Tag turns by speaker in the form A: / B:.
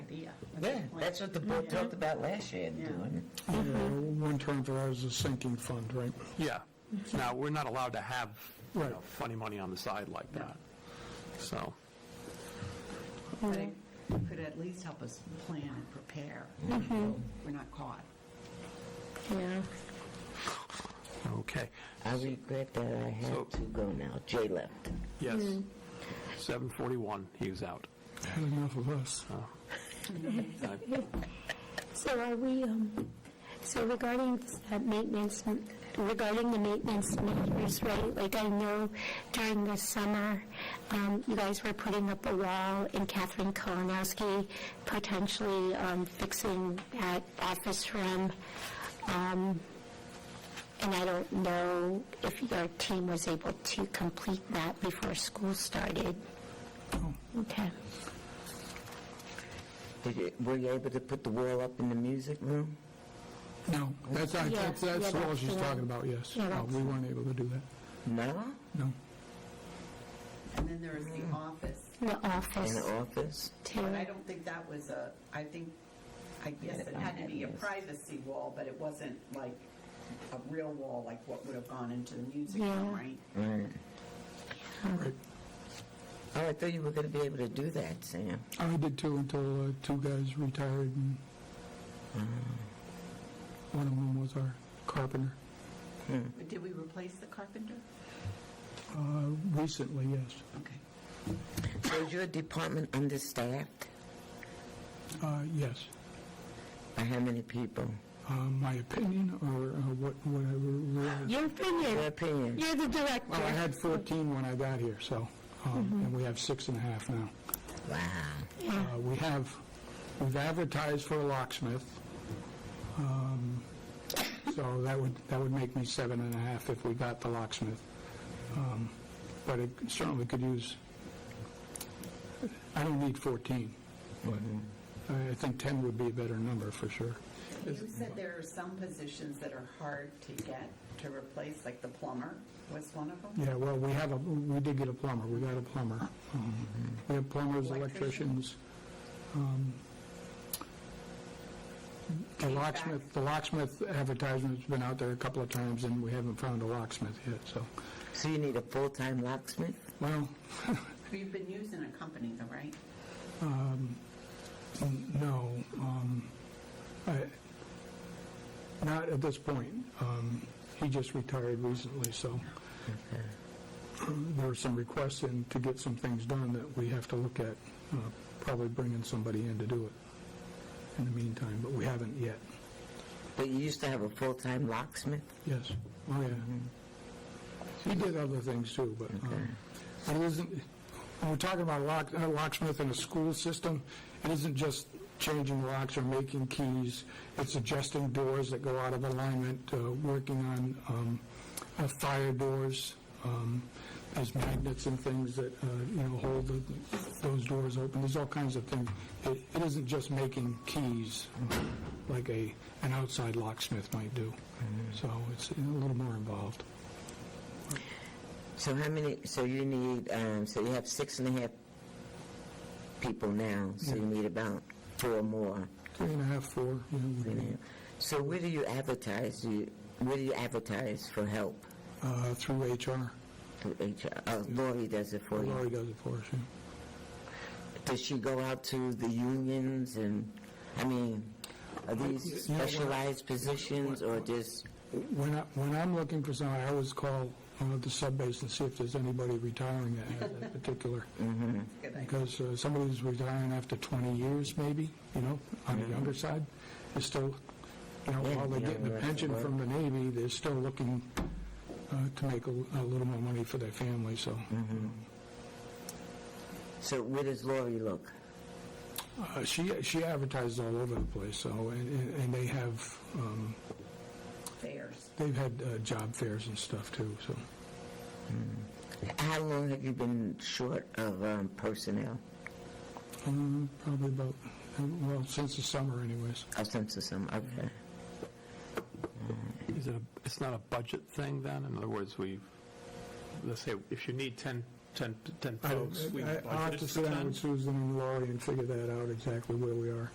A: Yeah, that's what the board talked about last year,
B: Yeah.
A: doing.
C: Yeah, One term for that is a sinking fund, right?
D: Yeah. Now, we're not allowed to have, you
C: Right.
D: know, funny money on the side like that. So,
B: But it could at least help us plan and prepare.
A: Mm-hmm.
B: We're not caught.
E: Yeah.
D: okay.
A: I regret that I
D: So-
A: have to go now. Jay left.
D: Yes. 7:41, he was out.
C: Had enough of us.
E: So are we, um, so regarding that maintenance, regarding the maintenance measures, right? Like I know during the summer, um, you guys were putting up a wall and Catherine Kolonowski potentially, um, fixing that office room. Um, and I don't know if your team was able to complete that before school started. Okay.
A: Did you, were you able to put the wall up in the music room?
C: No, that's, I-
E: Yeah,
C: that's
E: yeah,
C: that's all
E: that's
C: she's
E: the
C: talking
E: one.
C: about, yes.
E: Yeah,
C: No,
E: that's-
C: We weren't able to do that,
A: No?
C: no.
B: And then there is the
A: Mm-hmm.
B: office,
E: The
A: In
E: office
A: the office?
E: too.
B: but I don't think that was a, I think, I guess it had to be a privacy wall, but it wasn't like a real wall, like what would have gone into the music room,
E: Yeah.
B: right?
A: Right.
C: Right.
A: Oh, I thought you were going to be able to do that, Sam.
C: I did too until uh, two guys retired and one of them was our carpenter.
B: But Did we replace the carpenter?
C: Uh, Recently, yes.
B: Okay.
A: So is your department understaffed?
C: Uh, Yes.
A: By how many people?
C: Uh, My opinion or uh, what, whatever.
E: Your opinion.
A: Your opinion?
E: You're the director.
C: Well, Oh, I had 14 when I got here, so, um, and we have six and a half now.
A: Wow.
C: Uh, We have, we've advertised for a locksmith, um, so that would, that would make me seven and a half if we got the locksmith. Um, But it certainly could use, I don't need 14. I I think 10 would be a better number, for sure.
B: You said there are some positions that are hard to get to replace, like the plumber was one of them?
C: Yeah, well, we have a, we did get a plumber, we got a plumber. Um, We have plumbers, electricians. um, The locksmith, the locksmith advertisement's been out there a couple of times, and we haven't found a locksmith yet, so,
A: So you need a full-time locksmith?
C: well,
B: You've been using a company though, right?
C: n- no. um, I- Not at this point. Um, He just retired recently, so um, there are some requests in to get some things done that we have to look at, uh, probably bringing somebody in to do it in the meantime, but we haven't yet.
A: But you used to have a full-time locksmith?
C: Yes, oh, yeah. He did other things too, but um, it isn't, when we're talking about lock- uh, locksmith in a school system, it isn't just changing locks or making keys, it's adjusting doors that go out of alignment, uh, working on um, uh, fire doors, um, there's magnets and things that, uh, you know, hold the- those doors open, there's all kinds of things. It it isn't just making keys like a, an outside locksmith might do. So it's a little more involved.
A: So how many, so you need, um, so you have six and a half people now, so you need about four more.
C: Three and a half, four, you know, would
A: you
C: be,
A: know. So where do you advertise, you, where do you advertise for help?
C: uh, through HR.
A: Through HR, oh, Lori does it for you.
C: Lori does it for us, yeah.
A: Does she go out to the unions and, I mean, are these
C: You know, when I-
A: specialized positions or just,
C: When I, when I'm looking for someone, I always call uh, the sub-base and see if there's anybody retiring at that particular,
A: Mm.
B: Good idea.
C: because uh, somebody who's retiring after 20 years maybe, you know, on the younger side, is still, you know,
A: Yeah,
C: while they're
A: yeah,
C: getting a
A: that's
C: pension
A: right.
C: from the Navy, they're still looking uh, to make a a little more money for their family, so.
A: Mm-hmm. so where does Lori look?
C: Uh, She, she advertises all over the place, so, and, and- and they have, um,
B: Fairs.
C: they've had uh, job fairs and stuff too, so.
A: How long have you been short of um, personnel,
C: Um, Probably about, well, since the summer anyways.
A: Oh, since the summer? Okay.
D: Is it, a- it's not a budget thing then? In other words, we, let's say, if you need 10, 10, 10
C: I
D: folks, we
C: I- I'll have
D: budgeted
C: to
D: for
C: sit down
D: 10?
C: with Susan and Laurie and figure that out exactly where we are.